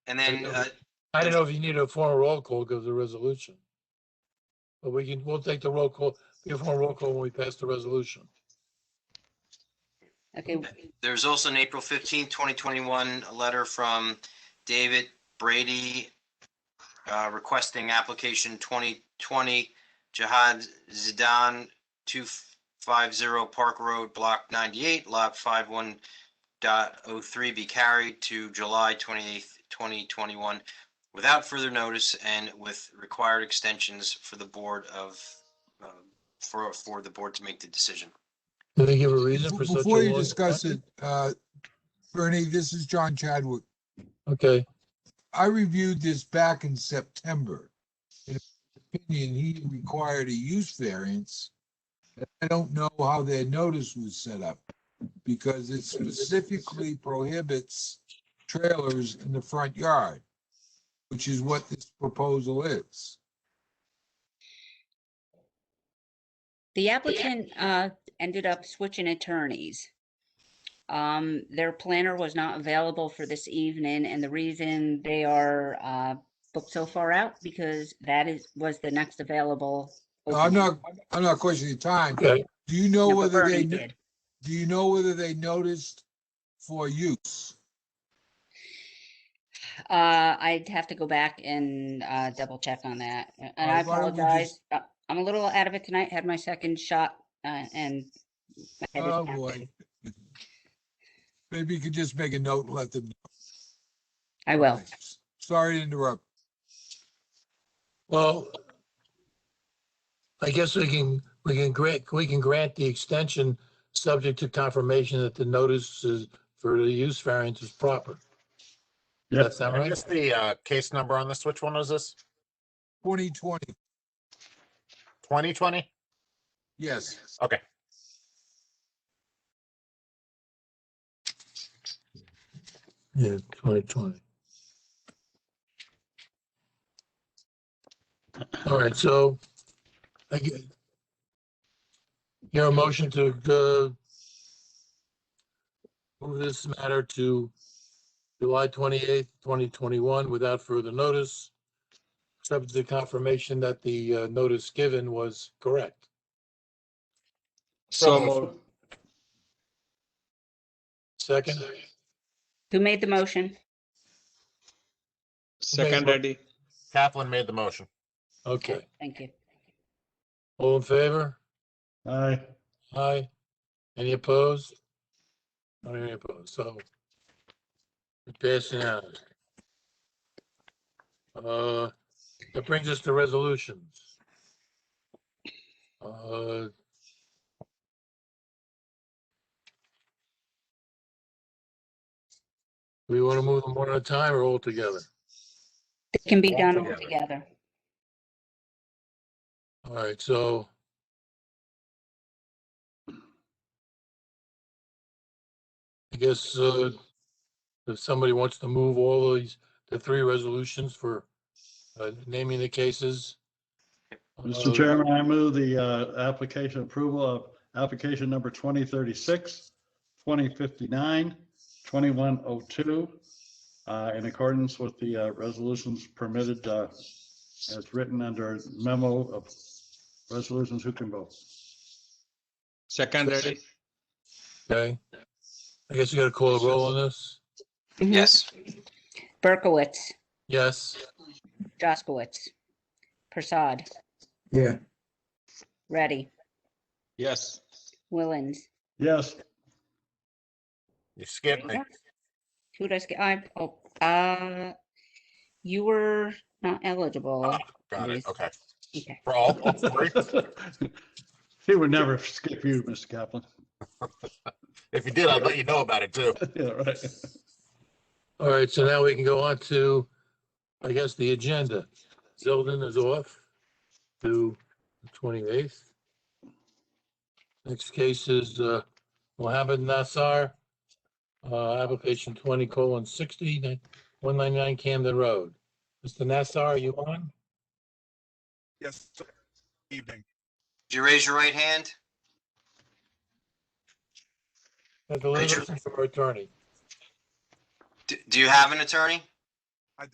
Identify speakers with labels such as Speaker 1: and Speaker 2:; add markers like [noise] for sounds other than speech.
Speaker 1: And then, uh,
Speaker 2: I don't know if you need a formal roll call because of the resolution. But we can, we'll take the roll call, we have a roll call when we pass the resolution.
Speaker 3: Okay,
Speaker 1: there's also an April fifteenth, twenty twenty-one, a letter from David Brady uh, requesting application twenty twenty Jihad Zidane, two five zero Park Road, block ninety-eight, lot five one dot oh three be carried to July twenty-eighth, twenty twenty-one without further notice and with required extensions for the board of, um, for, for the board to make the decision.
Speaker 2: Do they give a reason for such a?
Speaker 4: Before you
Speaker 2: long-
Speaker 4: discuss it, uh, Bernie, this is John Chadwick.
Speaker 2: Okay,
Speaker 4: I reviewed this back in September. In my opinion, he required a use variance. I don't know how their notice was set up because it specifically prohibits trailers in the front yard, which is what this proposal is.
Speaker 3: the applicant uh, ended up switching attorneys. Um, Their planner was not available for this evening, and the reason they are uh, booked so far out, because that is, was the next available.
Speaker 4: No, I'm
Speaker 3: opening.
Speaker 4: not, I'm not questioning time.
Speaker 2: Okay.
Speaker 4: Do you know
Speaker 3: No, but
Speaker 4: whether they,
Speaker 3: Bernie
Speaker 4: kn-
Speaker 3: did.
Speaker 4: do you know whether they noticed for use?
Speaker 3: Uh, I'd have to go back and uh, double check on that. And I
Speaker 4: Uh, why don't we just-
Speaker 3: apologize. Uh, I'm a little out of it tonight. Had my second shot uh, and. my head is
Speaker 4: Oh,
Speaker 3: pounding.
Speaker 4: boy. Maybe you could just make a note and let them. know.
Speaker 3: I will.
Speaker 4: Sorry to interrupt.
Speaker 2: well, I guess we can, we can grant, we can grant the extension subject to confirmation that the notice is for the use variance is proper. Does that sound
Speaker 5: Can I
Speaker 2: right?
Speaker 5: guess the uh, case number on this, which one was this?
Speaker 4: Twenty twenty,
Speaker 5: 2020?
Speaker 4: yes.
Speaker 2: Yeah, twenty twenty. All right, so I get your motion to uh move this matter to July twenty-eighth, twenty twenty-one without further notice, subject to confirmation that the uh, notice given was correct.
Speaker 5: So moved.
Speaker 2: Second,
Speaker 3: Who made the motion?
Speaker 6: Second,
Speaker 2: well-
Speaker 6: Eddie.
Speaker 5: Kaplan made the motion.
Speaker 2: okay,
Speaker 3: Thank you.
Speaker 2: all in favor?
Speaker 7: Aye.
Speaker 2: Aye. Any opposed? Not any opposed, so. it Passing out. Uh, that brings us to resolutions. Uh. Do we want to move them one at a time or all together?
Speaker 3: It can be done all
Speaker 5: Altogether.
Speaker 3: together.
Speaker 2: All right, so. I guess, uh, if somebody wants to move all these, the three resolutions for, uh, naming the cases.
Speaker 7: Mr.
Speaker 2: uh,
Speaker 7: Chairman, I move the uh, application approval of application number 2036, 2059, 2102, uh, in accordance with the uh, resolutions permitted uh, as written under memo of resolutions who can vote.
Speaker 6: Second, Eddie.
Speaker 2: Okay. I guess you gotta call a roll on this.
Speaker 1: Yes.
Speaker 3: Berkowitz,
Speaker 2: Yes,
Speaker 3: Jaskowitz, Prasad,
Speaker 4: Yeah.
Speaker 3: Ready,
Speaker 6: Yes.
Speaker 3: Willens.
Speaker 7: Yes, [laughs]
Speaker 5: You skipped me.
Speaker 3: Who does, get- I, oh, uh, you were not eligible.
Speaker 5: Ah, Got it.
Speaker 3: Yes.
Speaker 5: Okay.
Speaker 3: Okay.
Speaker 5: For all, [laughs] all three?
Speaker 7: he would never skip you, Mr. Kaplan. [laughs]
Speaker 5: If you did, I'd let you know about it too.
Speaker 7: Yeah, right.
Speaker 2: all right, so now we can go on to, I guess, the agenda. Zeldin is off to the twenty-eighth. Next case is uh, Mohammed Nassar, uh, application twenty colon sixty, one ninety-nine Camden Road. Mr. Nassar, are you on?
Speaker 8: Yes, sir. evening.
Speaker 1: Did you raise your right hand?
Speaker 2: Have the letter from our attorney.
Speaker 1: D- Do you have an attorney?